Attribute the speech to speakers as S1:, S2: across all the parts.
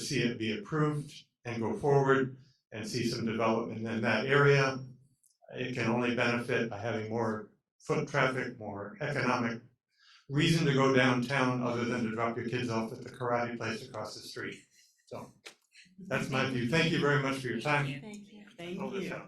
S1: see it be approved and go forward and see some development in that area. It can only benefit by having more foot traffic, more economic reason to go downtown other than to drop your kids off at the karate place across the street. So that's my view. Thank you very much for your time.
S2: Thank you.
S3: Thank
S1: Hold Oh, this
S3: you.
S1: out.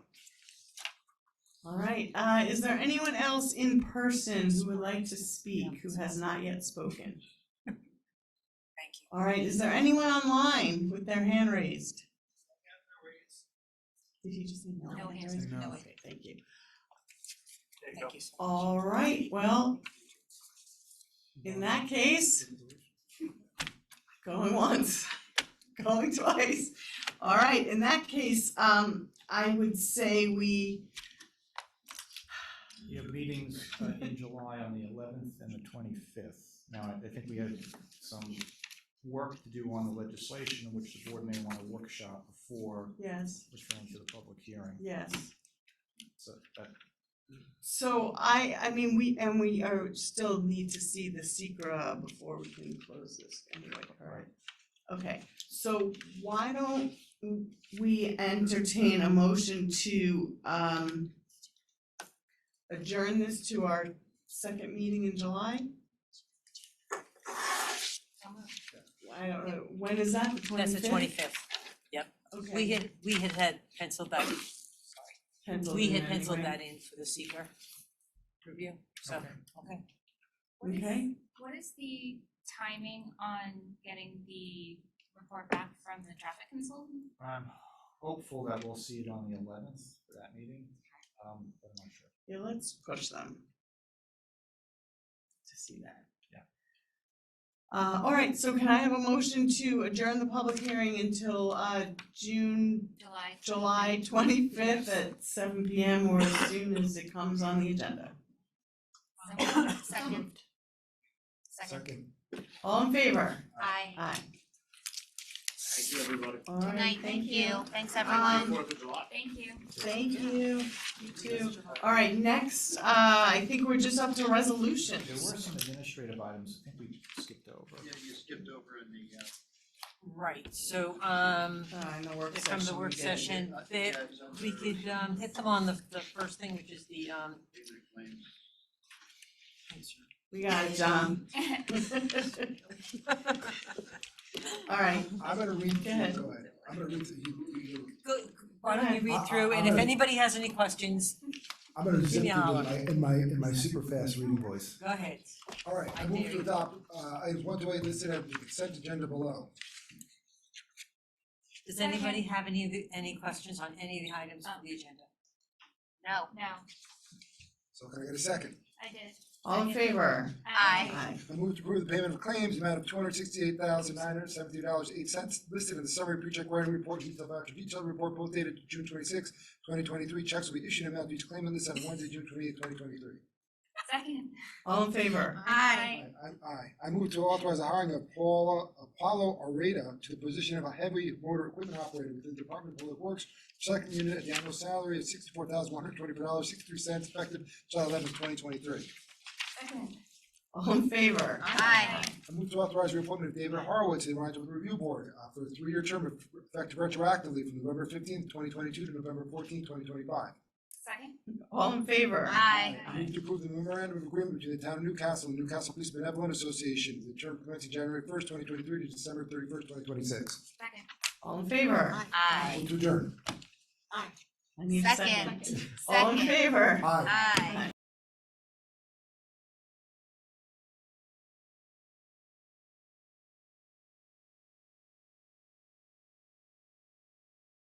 S3: All right, uh, is there anyone else in person who would like to speak who has not yet spoken?
S2: Thank you.
S3: All right, is there anyone online with their hand raised? Did you just say no?
S2: No hands,
S3: raised?
S2: no.
S3: Okay, thank you.
S2: Thank you.
S3: All right, well,
S4: Um,
S3: in that case, going once, going twice. All right, in that case, um, I would say we,
S4: You have meetings uh, in July on the eleventh and the twenty-fifth. Now, I- I think we have some work to do on the legislation, which the board may want to workshop before
S3: yes,
S4: referring to the public hearing.
S3: yes.
S4: So uh, that-
S3: So I, I mean, we, and we are, still need to see the secra before we can close this anyway, alright? Okay, so why don't we entertain a motion to, um, adjourn this to our second meeting in July? I don't know, when is that, the
S2: That's
S3: twenty-fifth?
S2: the twenty-fifth. We
S3: Okay.
S2: had, we had had penciled that,
S3: penciled
S2: we
S3: in
S2: had penciled
S3: anyway.
S2: that in for the seeker review, so, okay.
S5: What is-
S3: Okay,
S5: What is the timing on getting the report back from the traffic consultant?
S4: I'm hopeful that we'll see it on the eleventh for that meeting, um, but I'm not sure.
S3: yeah, let's push them. To see that.
S4: Yeah.
S3: Uh, all right, so can I have a motion to adjourn the public hearing until, uh, June,
S5: July?
S3: July twenty-fifth at seven P M or as soon as it comes on the agenda?
S5: Second. Second.
S3: All in favor?
S5: Aye.
S3: Aye.
S6: Thank you, everybody.
S3: All right,
S5: Good night, thank you. Thanks, everyone.
S3: Um,
S6: Fourth of July.
S5: Thank you.
S3: Thank you, you too. All right, next, uh, I think we're just up to resolutions.
S4: There were some administrative items I think we skipped over.
S6: Yeah, you skipped over in the, uh.
S2: Right, so, um,
S3: Uh, in the work session.
S2: from the work
S3: we did.
S2: session,
S6: I think
S2: that
S6: that was on
S2: we
S6: the-
S2: could, um, hit them on the, the first thing, which is the, um,
S6: Favorite claim.
S3: We got it, John. All right,
S7: I'm gonna read
S3: Go
S7: through,
S3: ahead.
S7: go ahead, I'm gonna read through, you, you, you-
S2: Go, Uh-uh. why don't you read through, and if anybody has any questions,
S7: I'm gonna zip through
S2: me
S7: in
S2: a holler.
S7: my, in my, in my super fast reading voice.
S2: go ahead.
S7: All right, I
S2: I
S7: move
S2: dare
S7: to
S2: you.
S7: adopt, uh, items one through eight listed on the consent agenda below.
S2: Does anybody have any, of the- any questions on any of the items on the agenda?
S5: No. No,
S7: So can I get a second?
S5: I did.
S3: all in favor?
S5: Aye.
S3: Aye.
S7: I move to approve the payment of claims, amount of two hundred sixty-eight thousand nine hundred seventy-two dollars, eight cents, listed in the summary pre-check writing report, detailed voucher detailed report, both dated June twenty-six, twenty twenty-three, checks will be issued and mailed to each claimant this on Wednesday, June twenty-eighth, twenty twenty-three.
S5: Second.
S3: All in favor?
S5: Aye.
S7: I, I, I move to authorize the hiring of Paula, Apollo Areta to the position of a heavy motor equipment operator within the Department of Public Works, second unit at the annual salary of sixty-four thousand one hundred twenty-four dollars, sixty-three cents, effective July eleventh, twenty twenty-three.
S5: Second.
S3: All in favor?
S5: Aye.
S7: I move to authorize the reappointment of David Horowitz to the Rhinebeck Review Board uh, for a three-year term effective retroactively from November fifteenth, twenty twenty-two to November fourteenth, twenty twenty-five.
S5: Second.
S3: All in favor?
S7: I move to approve the memorandum of agreement between the town of Newcastle and Newcastle Police Benevolent Association, the term commencing January first, twenty twenty-three to December thirty-first, twenty twenty-six.
S5: Second.
S3: All in favor?
S7: Move to adjourn.
S3: I need a second.
S5: Second.
S3: All in favor?
S7: Aye.
S5: Aye.
S3: Aye.